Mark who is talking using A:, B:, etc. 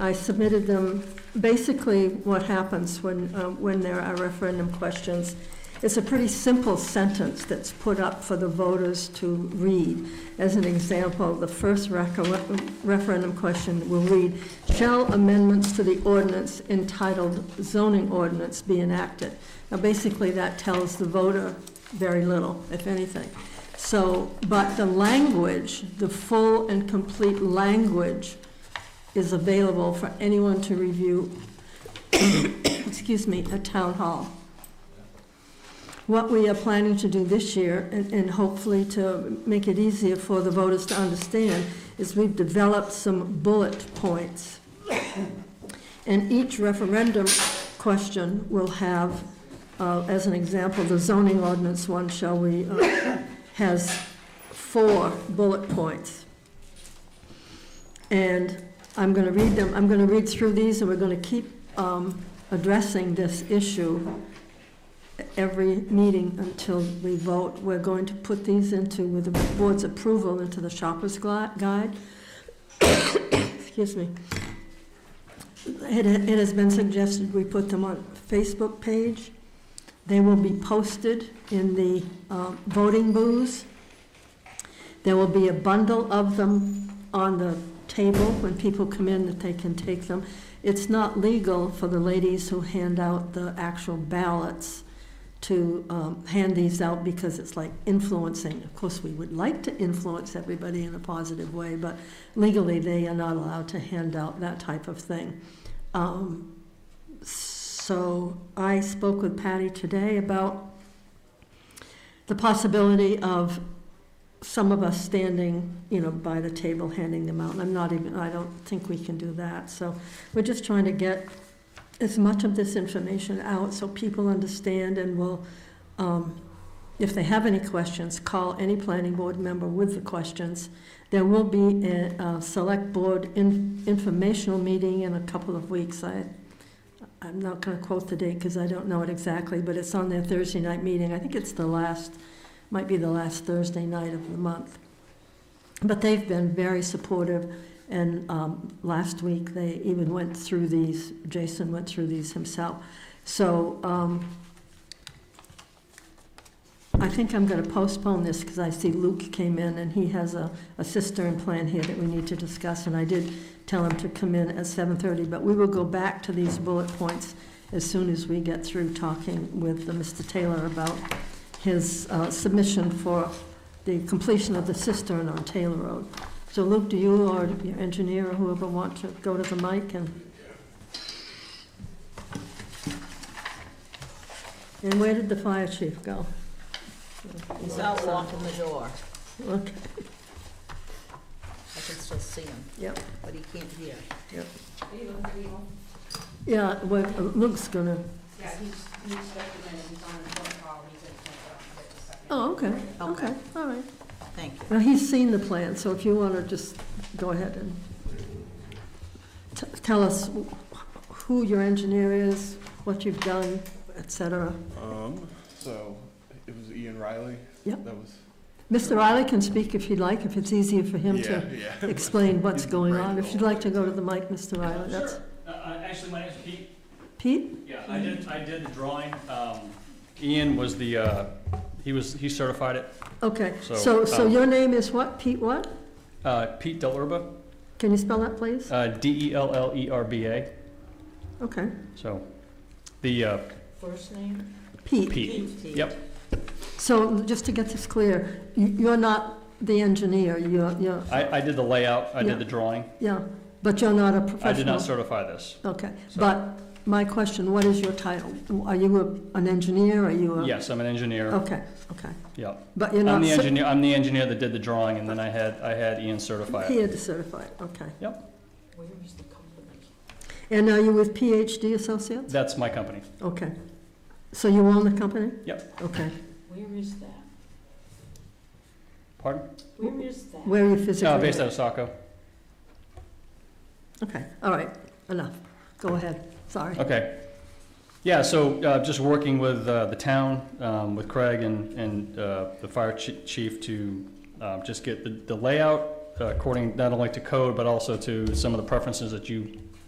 A: I submitted them, basically what happens when, uh, when there are referendum questions, it's a pretty simple sentence that's put up for the voters to read. As an example, the first reco- referendum question will read, "Shall amendments to the ordinance entitled zoning ordinance be enacted?" Now, basically, that tells the voter very little, if anything. So, but the language, the full and complete language is available for anyone to review, excuse me, at Town Hall. What we are planning to do this year, and and hopefully to make it easier for the voters to understand, is we've developed some bullet points. And each referendum question will have, uh, as an example, the zoning ordinance one, shall we, uh, has four bullet points. And I'm going to read them, I'm going to read through these, and we're going to keep um, addressing this issue every meeting until we vote. We're going to put these into, with the board's approval, into the shopper's gui- guide. Excuse me. It it has been suggested we put them on Facebook page. They will be posted in the uh, voting booths. There will be a bundle of them on the table when people come in that they can take them. It's not legal for the ladies who hand out the actual ballots to um, hand these out because it's like influencing. Of course, we would like to influence everybody in a positive way, but legally, they are not allowed to hand out that type of thing. Um, So I spoke with Patty today about the possibility of some of us standing, you know, by the table handing them out, and I'm not even, I don't think we can do that, so we're just trying to get as much of this information out so people understand and will, um, if they have any questions, call any planning board member with the questions. There will be a, a select board in, informational meeting in a couple of weeks, I, I'm not gonna quote the date, because I don't know it exactly, but it's on their Thursday night meeting, I think it's the last might be the last Thursday night of the month. But they've been very supportive, and um, last week, they even went through these, Jason went through these himself. So um, I think I'm going to postpone this, because I see Luke came in, and he has a a cistern plan here that we need to discuss, and I did tell him to come in at 7:30, but we will go back to these bullet points as soon as we get through talking with uh, Mr. Taylor about his uh, submission for the completion of the cistern on Taylor Road. So Luke, do you or your engineer or whoever want to go to the mic and? And where did the fire chief go?
B: He's out walking the door.
A: Okay,
B: I can still see him,
A: yep,
B: but he can't hear.
A: yep. Yeah, well, uh, Luke's gonna,
C: Yeah, he's, he's stepping in, he's on the phone call, he's gonna take it up in just a second.
A: oh, okay,
B: Okay.
A: okay, all right.
B: Thank you.
A: Well, he's seen the plan, so if you want to just go ahead and t- tell us who your engineer is, what you've done, et cetera.
D: Um, so it was Ian Riley.
A: Yep.
D: That was.
A: Mr. Riley can speak if you'd like, if it's easier for him
D: yeah,
A: to
D: yeah.
A: explain what's
D: He's
A: going
D: right
A: on.
D: in
A: If
D: the
A: you'd like to
D: middle.
A: go to the mic, Mr. Riley, that's,
E: Sure. Uh, uh, Actually, my name's Pete.
A: Pete?
E: Yeah, I did, I did the drawing. Um, Ian was the, uh, he was, he certified it.
A: Okay,
E: So,
A: so, so
E: um,
A: your name is what, Pete what?
E: Uh, Pete Dellerba,
A: Can you spell that, please?
E: uh, D-E-L-L-E-R-B-A.
A: Okay,
E: So the uh,
B: First name?
A: Pete.
E: Pete.
B: Pete.
E: Yep,
A: So just to get this clear, you- you're not the engineer, you're, you're,
E: I, I did the layout, I
A: Yeah.
E: did the drawing.
A: yeah, but you're not a professional.
E: I did not certify this.
A: Okay,
E: So-
A: but my question, what is your title? Are you a- an engineer, are you a?
E: Yes, I'm an engineer,
A: Okay, okay,
E: yeah.
A: but Oh. you're not.
E: I'm the
A: cer-
E: engineer, I'm the engineer that did the drawing, and then I had, I had Ian certify
A: He
E: it.
A: had to certify it, okay.
B: Where is the company?
A: And are you with PhD Associates?
E: That's my company.
A: Okay. So you own the company?
E: Yep.
A: Okay.
B: Where is that?
E: Pardon?
B: Where is that?
A: Where are you
E: Uh,
A: physically?
E: Based out of Saco.
A: Okay, all right, enough. Go ahead, sorry.
E: Okay. Yeah, so uh, just working with uh, the town, um, with Craig and, and uh, the fire chi- chief to um, just get the- the layout uh, according not only to code, but also to some of the preferences that you